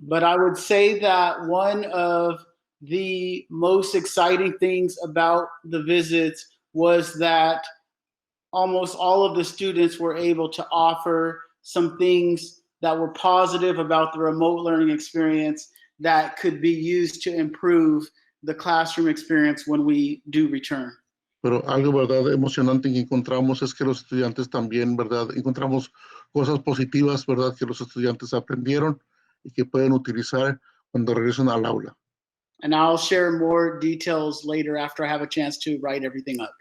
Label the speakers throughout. Speaker 1: But I would say that one of the most exciting things about the visits was that almost all of the students were able to offer some things that were positive about the remote learning experience that could be used to improve the classroom experience when we do return.
Speaker 2: Pero algo, ¿verdad? Emocionante que encontramos es que los estudiantes también, ¿verdad? Encontramos cosas positivas, ¿verdad? Que los estudiantes aprendieron y que pueden utilizar cuando regresan al aula.
Speaker 1: And I'll share more details later after I have a chance to write everything up.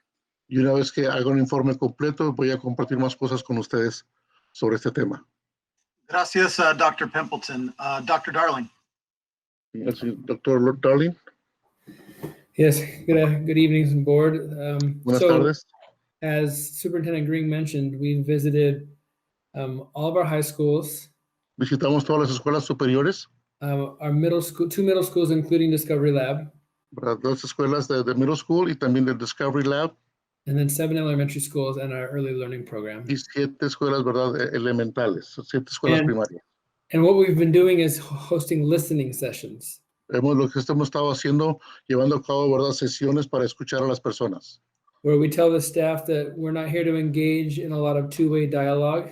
Speaker 2: Y una vez que haga un informe completo, voy a compartir más cosas con ustedes sobre este tema.
Speaker 3: Gracias, uh, Dr. Pimpleton. Uh, Dr. Darling.
Speaker 2: Doctor Darling,
Speaker 4: Yes, good, good evening, board. Um,
Speaker 2: buenas
Speaker 4: so,
Speaker 2: tardes.
Speaker 4: as Superintendent Green mentioned, we visited um, all of our high schools,
Speaker 2: Visitamos todas las escuelas superiores,
Speaker 4: um, our middle school, two middle schools, including Discovery Lab,
Speaker 2: ¿verdad? Las escuelas de, de middle school y también del Discovery Lab
Speaker 4: and then seven elementary schools and our early learning program.
Speaker 2: y siete escuelas, ¿verdad? E- Elementales, siete escuelas
Speaker 4: Bien.
Speaker 2: primarias.
Speaker 4: And what we've been doing is hosting listening sessions.
Speaker 2: Hemos, lo que hemos estado haciendo, llevando a cabo, ¿verdad? Sesiones para escuchar a las personas,
Speaker 4: Where we tell the staff that we're not here to engage in a lot of two-way dialogue.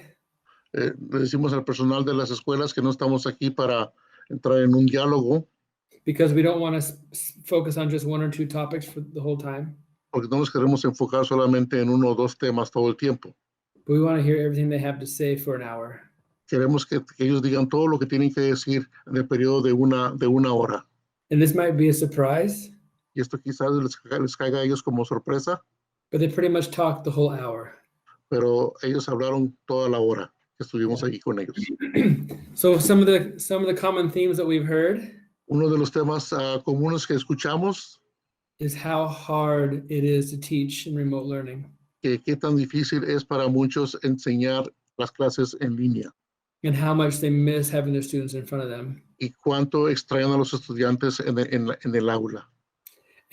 Speaker 2: Eh, le decimos al personal de las escuelas que no estamos aquí para entrar en un diálogo,
Speaker 4: because we don't want to focus on just one or two topics for the whole time.
Speaker 2: porque no nos queremos enfocar solamente en uno o dos temas todo el tiempo.
Speaker 4: But we want to hear everything they have to say for an hour.
Speaker 2: Queremos que, que ellos digan todo lo que tienen que decir en el periodo de una, de una hora.
Speaker 4: And this might be a surprise,
Speaker 2: Y esto quizás les, ca- les caiga a ellos como sorpresa,
Speaker 4: but they pretty much talked the whole hour.
Speaker 2: pero ellos hablaron toda la hora que estuvimos aquí con ellos.
Speaker 4: so some of the some of the common themes that we've heard
Speaker 2: Uno de los temas ah, comunes que escuchamos,
Speaker 4: is how hard it is to teach in remote learning
Speaker 2: que qué tan difícil es para muchos enseñar las clases en línea
Speaker 4: and how much they miss having their students in front of them.
Speaker 2: y cuánto extrañan a los estudiantes en el, en la- en el aula.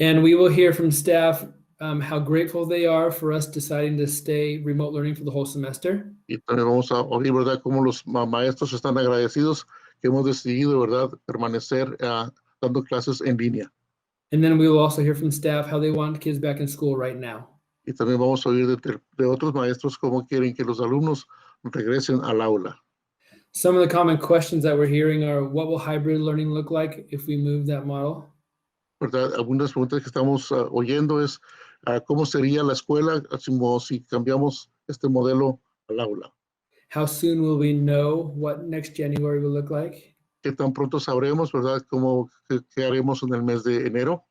Speaker 4: And we will hear from staff um, how grateful they are for us deciding to stay remote learning for the whole semester.
Speaker 2: Y también vamos a oír, ¿verdad?, cómo los ma- maestros están agradecidos que hemos decidido, ¿verdad?, permanecer ah, dando clases en línea.
Speaker 4: And then we will also hear from staff how they want kids back in school right now.
Speaker 2: Y también vamos a oír de, ter- de otros maestros cómo quieren que los alumnos regresen al aula.
Speaker 4: Some of the common questions that we're hearing are what will hybrid learning look like if we move that model?
Speaker 2: ¿verdad? Algunas preguntas que estamos ah, oyendo es ah, cómo sería la escuela así como si cambiamos este modelo al aula.
Speaker 4: How soon will we know what next January will look like?
Speaker 2: ¿Qué tan pronto sabremos, verdad? ¿Cómo qué, qué haremos en el mes de enero?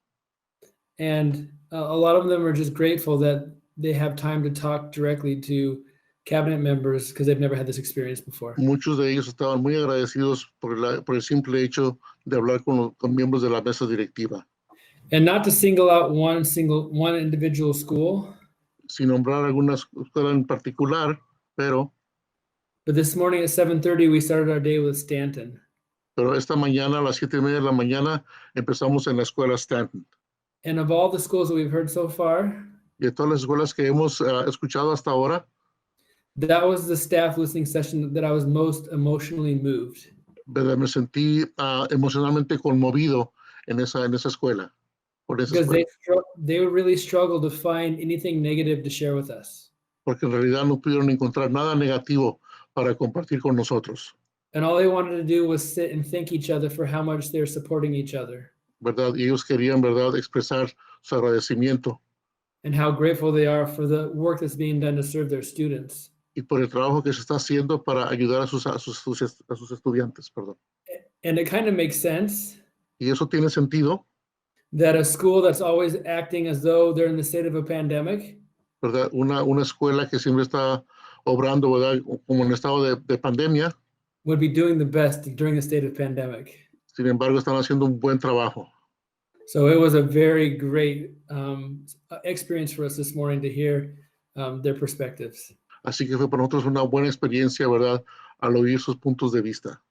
Speaker 4: And uh, a lot of them are just grateful that they have time to talk directly to cabinet members because they've never had this experience before.
Speaker 2: Muchos de ellos estaban muy agradecidos por, la- por el simple hecho de hablar con, los- con miembros de la mesa directiva.
Speaker 4: And not to single out one single one individual school,
Speaker 2: Sin nombrar alguna escuela en particular, pero,
Speaker 4: but this morning at 7:30 we started our day with Stanton.
Speaker 2: pero esta mañana a las siete y media de la mañana empezamos en la escuela Stanton.
Speaker 4: And of all the schools that we've heard so far,
Speaker 2: Y de todas las escuelas que hemos ah, escuchado hasta ahora,
Speaker 4: that was the staff listening session that I was most emotionally moved.
Speaker 2: ¿verdad? Me sentí ah, emocionalmente conmovido en esa, en esa escuela. Por esa
Speaker 4: because they
Speaker 2: escuela,
Speaker 4: str- they really struggle to find anything negative to share with us
Speaker 2: porque en realidad no pudieron encontrar nada negativo para compartir con nosotros,
Speaker 4: and all they wanted to do was sit and thank each other for how much they're supporting each other
Speaker 2: ¿verdad? Y ellos querían, ¿verdad?, expresar su agradecimiento
Speaker 4: and how grateful they are for the work that's being done to serve their students
Speaker 2: y por el trabajo que se está haciendo para ayudar a sus, a sus, sus est- a sus estudiantes, perdón.
Speaker 4: and it kind of makes sense
Speaker 2: Y eso tiene sentido,
Speaker 4: that a school that's always acting as though they're in the state of a pandemic
Speaker 2: ¿verdad? Una, una escuela que siempre está obrando, ¿verdad?, como en estado de, de pandemia,
Speaker 4: would be doing the best during the state of pandemic
Speaker 2: sin embargo, están haciendo un buen trabajo.
Speaker 4: so it was a very great um, experience for us this morning to hear um, their perspectives
Speaker 2: Así que fue para nosotros una buena experiencia, ¿verdad?, al oír sus puntos de vista.